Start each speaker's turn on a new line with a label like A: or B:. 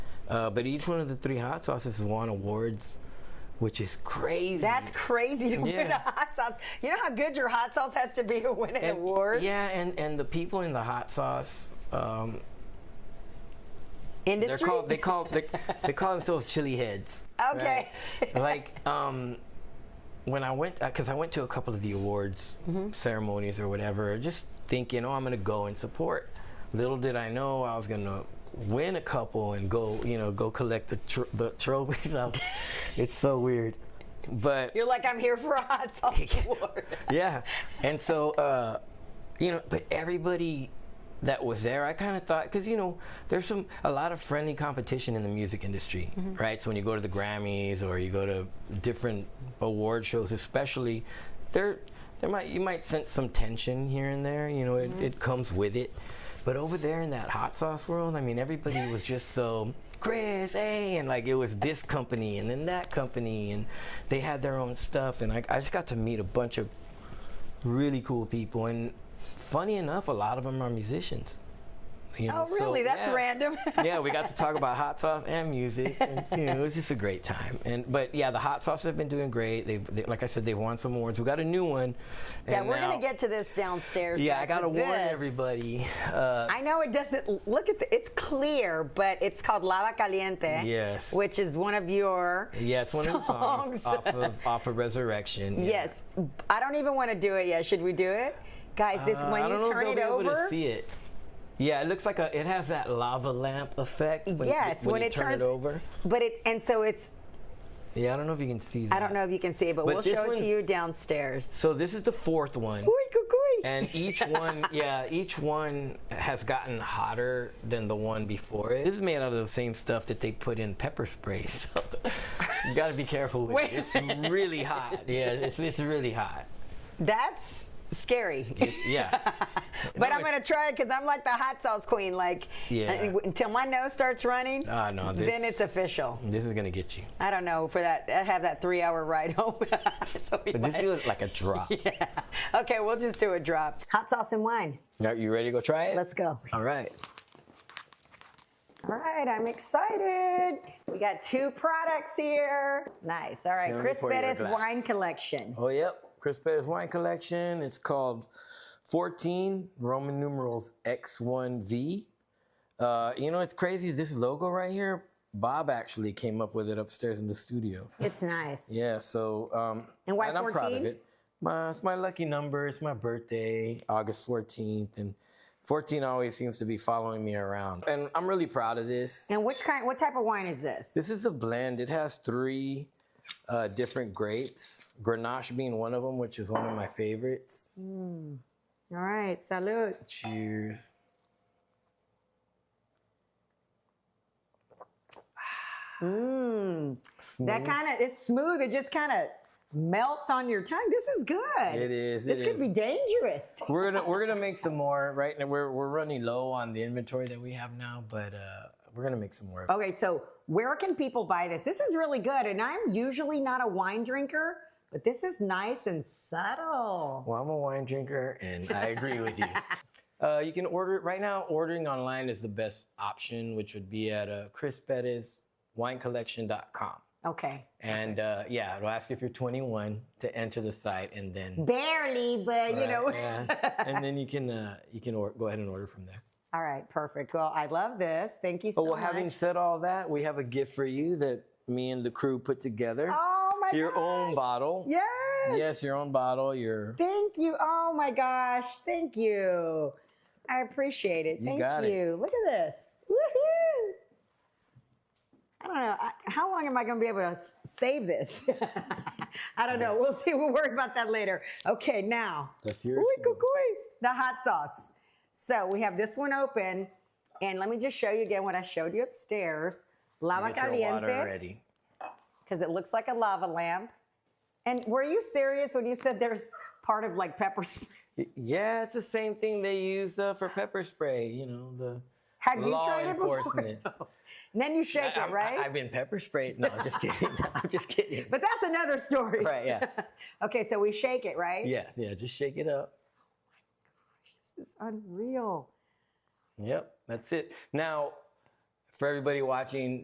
A: Uh, but each one of the three hot sauces has won awards, which is crazy.
B: That's crazy to win
A: Yeah.
B: a hot sauce. You know how good your hot sauce has to be to win an
A: And-
B: award
A: Yeah, and, and the people in the hot sauce, um, they're
B: industry.
A: called they call they, they call themselves chili heads.
B: Okay.
A: right? like um, when I went because I went to a couple of the awards
B: Mm-hmm.
A: ceremonies or whatever, just thinking, oh, I'm gonna go and support. Little did I know I was gonna win a couple and go, you know, go collect the tr- the trophies. I was- it's so weird, but
B: You're like, I'm here for a hot sauce award.
A: yeah. And so, uh, you know, but everybody that was there, I kind of thought, because, you know, there's some, a lot of friendly competition in the music industry, right? So when you go to the Grammys or you go to different award shows, especially, there, there might, you might sense some tension here and there, you know, it, it comes with it. But over there in that hot sauce world, I mean, everybody was just so Chris, hey, and like it was this company and then that company, and they had their own stuff, and I, I just got to meet a bunch of really cool people, and funny enough, a lot of them are musicians. You
B: Oh,
A: know, so,
B: really? That's
A: yeah.
B: random.
A: yeah, we got to talk about hot sauce and music. And, you know, it was just a great time. And but yeah, the hot sauce have been doing great. They've they, like I said, they've won some awards. We got a new one.
B: yeah,
A: and
B: we're
A: now-
B: gonna get to this downstairs.
A: Yeah, I
B: guys,
A: gotta
B: but
A: warn
B: this-
A: everybody. Uh,
B: I know it doesn't look at the. It's clear, but it's called Lava Caliente.
A: Yes.
B: Which is one of your.
A: yeah, it's one of the songs
B: songs.
A: off of off of Resurrection. yeah.
B: Yes. I don't even want to do it yet. Should we do it, guys? This
A: Uh,
B: when
A: I don't
B: you
A: know if
B: turn
A: they'll
B: it
A: be
B: over.
A: Able to see it. Yeah, it looks like a. It has that lava lamp effect. When
B: Yes,
A: you,
B: when
A: you
B: it
A: turn
B: turns-
A: it over.
B: But it and so it's.
A: Yeah, I don't know if you can see that.
B: I don't know if you can see it, but,
A: But
B: we'll
A: this
B: show it to
A: one's-
B: you downstairs.
A: So this is the fourth one.
B: Ooh, cuckoo.
A: and each one yeah each one has gotten hotter than the one before it this is made out of the same stuff that they put in pepper spray so you got to be careful with
B: Wait a
A: it it's really hot yeah it's, it's really hot
B: That's scary.
A: It's- yeah
B: But
A: No,
B: I'm
A: it's-
B: gonna try it because I'm like the hot sauce queen. Like,
A: Yeah.
B: uh, w- until my nose starts running,
A: Ah, no, this-
B: then it's official.
A: this is gonna get you
B: I don't know for that. I have that three-hour ride home. so we
A: but this
B: might-
A: feels like a drop
B: yeah. Okay, we'll just do a drop. Hot sauce and wine.
A: now you ready to go try it
B: Let's go.
A: all right
B: All right, I'm excited. We got two products here. Nice. All right,
A: Let me
B: Chris
A: pour you a
B: Bettis
A: glass.
B: wine collection.
A: oh yep chris Perez wine collection it's called 14 roman numerals x1v uh, you know it's crazy this logo right here bob actually came up with it upstairs in the studio
B: It's nice.
A: Yeah, so um
B: And why
A: I'm proud
B: 14?
A: of it. My it's my lucky number, it's my birthday, August 14th, and 14 always seems to be following me around. And I'm really proud of this.
B: And which kind? What type of wine is this?
A: This is a blend. It has three uh, different grapes, Grenache being one of them, which is one of my favorites.
B: All right, salud.
A: Cheers.
B: Mmm. That
A: Mm-hmm. Mm,
B: kind of it's smooth. It just kind of melts on your tongue. This is good.
A: It is,
B: This
A: it
B: could
A: is.
B: be dangerous.
A: we're gonna we're gonna make some more right now. We're we're running low on the inventory that we have now, but uh, we're gonna make some more.
B: Okay, so where can people buy this? This is really good, and I'm usually not a wine drinker, but this is nice and subtle.
A: Well, I'm a wine drinker, and I agree with you. Uh, you can order it right now. Ordering online is the best option, which would be at uh, chrisbettiswinecollection.com.
B: Okay,
A: And uh, yeah, it'll ask if you're 21 to enter the site, and then
B: barely, but you know.
A: Yeah. and then you can uh, you can or- go ahead and order from there.
B: All right, perfect. Well, I love this. Thank you so
A: Oh, well,
B: much.
A: having said all that, we have a gift for you that me and the crew put together.
B: oh my
A: your
B: gosh.
A: own bottle.
B: Yes.
A: Yes, your own bottle. Your
B: Thank you. Oh my gosh. Thank you. I appreciate it.
A: You
B: Thank
A: got it.
B: you. Look at this. Woohoo. I don't know. I, how long am I going to be able to s- save this? I don't know. We'll see. We'll worry about that later. Okay, now.
A: that's
B: Ooh,
A: yours.
B: cuckoo, the hot sauce. So we have this one open. And let me just show you again what I showed you upstairs. Lava
A: Get your water
B: caliente
A: ready.
B: because it looks like a lava lamp. And were you serious when you said there's part of like pepper spray?
A: Yeah, it's the same thing they use uh, for pepper spray. You know the
B: Have you
A: law
B: tried it before?
A: enforcement.
B: And then you shake
A: I,
B: it, right?
A: have been pepper sprayed. No, I'm just kidding. I'm just kidding.
B: but that's another story.
A: Right, yeah.
B: okay, so we shake it, right?
A: yeah, yeah. Just shake it up.
B: This is unreal.
A: Yep, that's it. Now, for everybody watching,